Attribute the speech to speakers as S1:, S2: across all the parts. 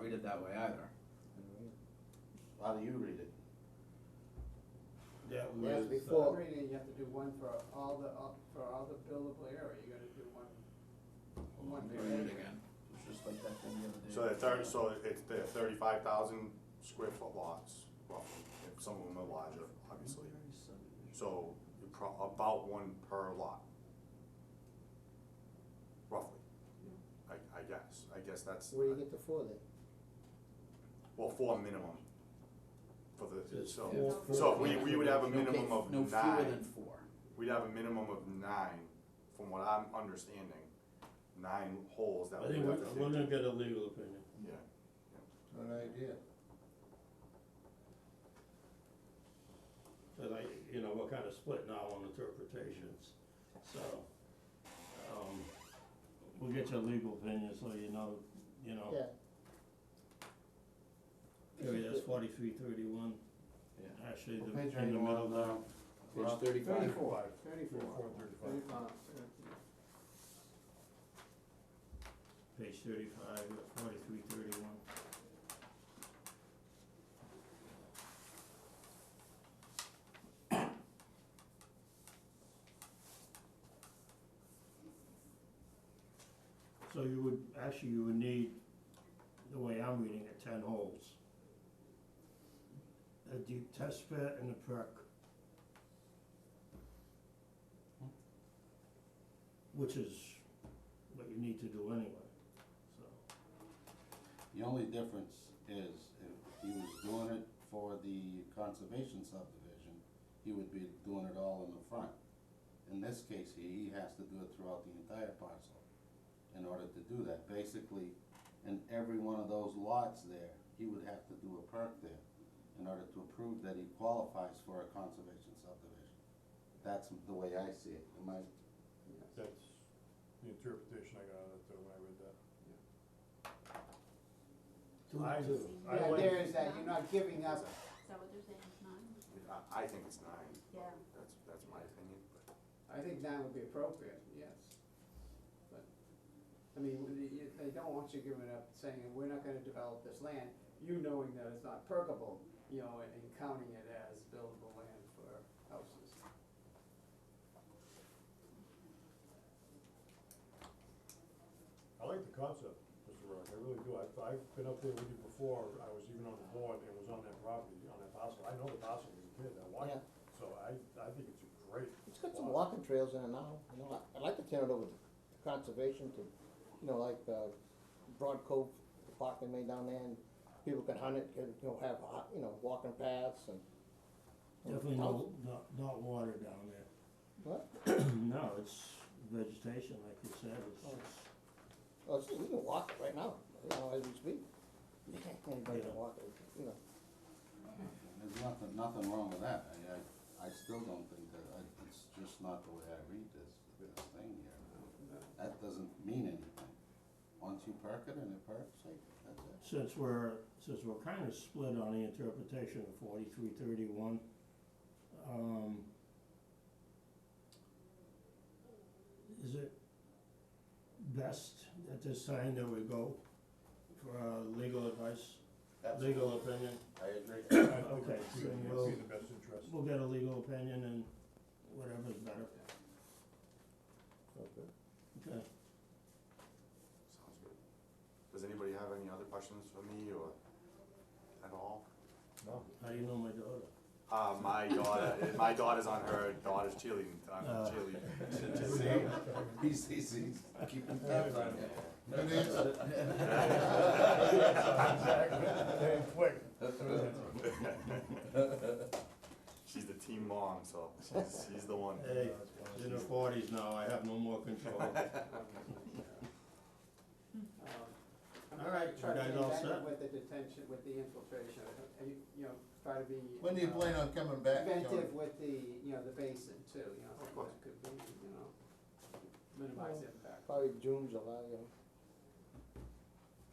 S1: read it that way either.
S2: How do you read it?
S3: That
S4: Yes,
S3: was,
S4: before.
S3: uh,
S4: Reading, you have to do one for all the, all- for all the billable area, you gotta do one, one per
S1: Read it
S4: acre.
S1: again. It's just like that thing the other day.
S5: So they're thirty, so it's, they're thirty-five thousand square foot lots, roughly, if some of them are larger, obviously. So you're pro- about one per lot. Roughly. I, I guess, I guess that's,
S4: Where do you get the four then?
S5: well, four minimum for the,
S3: Just
S5: so,
S3: four-
S1: Yeah.
S5: so we, we would have a
S1: No
S5: minimum
S1: ca-
S5: of
S1: No fewer than
S5: nine,
S1: four.
S5: we'd have a minimum of nine, from what I'm understanding, nine holes
S3: I
S5: that we
S3: think
S5: would
S3: we're,
S5: have to.
S3: we're gonna get a legal opinion.
S5: Yeah.
S2: Good idea.
S3: But I, you know, we're kind of split now on interpretations, so, um, we'll get your legal opinion so you know, you know,
S4: Yeah,
S3: area that's forty-three thirty-one.
S1: Yeah.
S3: Actually,
S2: What
S3: the,
S2: page are
S3: in the
S2: you
S3: middle
S2: on
S3: there,
S2: now?
S1: Page thirty-five.
S4: thirty-four,
S2: Thirty-four,
S4: thirty-four,
S2: thirty-five.
S4: thirty-five.
S3: page thirty-five, forty-three thirty-one. So you would, actually you would need, the way I'm reading it, ten holes. A deep test pit and a perk. Which is what you need to do anyway, so.
S2: The only difference is if he was doing it for the conservation subdivision, he would be doing it all in the front. In this case, he, he has to do it throughout the entire parcel in order to do that. Basically, in every one of those lots there, he would have to do a perk there in order to prove that he qualifies for a conservation subdivision. That's the way I see it. Am I
S6: That's the interpretation I got out of it though, when I read that.
S3: I,
S4: The
S6: I
S4: idea
S6: went,
S4: is that you're not giving up,
S7: Is that what they're saying, it's nine?
S5: I, I think it's nine.
S7: Yeah.
S5: That's, that's my opinion, but
S4: I think nine would be appropriate, yes. But, I mean, when you- you- they don't want you giving up, saying, we're not gonna develop this land, you knowing that it's not perkable, you know, and- and counting it as buildable land for houses.
S6: I like the concept, Mr. Rock, I really do. I've, I've been up there with you before, I was even on the board and was on that property, on that parcel. I know the parcel as a kid, I watched it. So I, I think it's a great.
S8: It's got some
S6: lot.
S8: walking trails in it now, you know, I- I'd like to turn it over to conservation to, you know, like, uh, Broad Cove, the park they made down there, and people can hunt it, can, you know, have, a hot- you know, walking paths and. and
S3: definitely
S8: houses.
S3: no, not, not water down there.
S8: What?
S3: No, it's vegetation, like you said, it's,
S8: Oh. Oh, see, we can walk it right now, you know, as we speak. Anybody
S3: Yeah.
S8: can walk it, you know,
S2: There's nothing, nothing wrong with that, I, I, I still don't think that, I, it's just not the way I read this, this thing here. That doesn't mean anything. Once you perk it and it perks, like, that's it.
S3: since we're, since we're kind of split on the interpretation of forty-three thirty-one, um, is it best at this time that we go for uh, legal advice, legal opinion?
S2: I agree.
S3: Okay,
S6: I think
S3: so
S6: it
S3: we'll-
S6: would be in the best interest.
S3: We'll get a legal opinion and whatever's better,
S8: okay.
S3: okay?
S5: sounds good. Does anybody have any other questions for me or at all?
S6: No.
S3: How do you know my daughter?
S5: Uh, my daughter, my daughter's on her daughter's cheerleading, uh,
S3: Uh.
S5: cheerleading.
S2: He's, he's, he's keeping tabs on it.
S6: Hey, quick.
S5: She's the team mom, so she's, she's the one.
S3: Hey, in her forties now, I have no more control.
S4: Um,
S3: All right,
S4: I'm gonna try
S3: Hmm. you
S4: to
S3: guys
S4: be
S3: all
S4: better
S3: set?
S4: with the detention, with the infiltration, I- I- you, you know, try to be.
S9: When do you
S4: uh,
S9: plan on coming back? Tony?
S4: Inventive with the, you know, the basin too, you know,
S5: course.
S4: that could be, you know, minimize impact,
S8: Probably June, July, you know.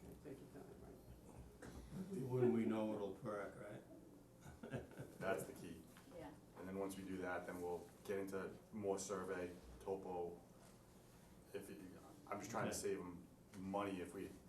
S4: Okay, take your time, right?
S3: Wouldn't we know it'll perk, right?
S5: That's the key.
S7: Yeah.
S5: And then once we do that, then we'll get into more survey, topo. If, it- I'm just trying to save them money if we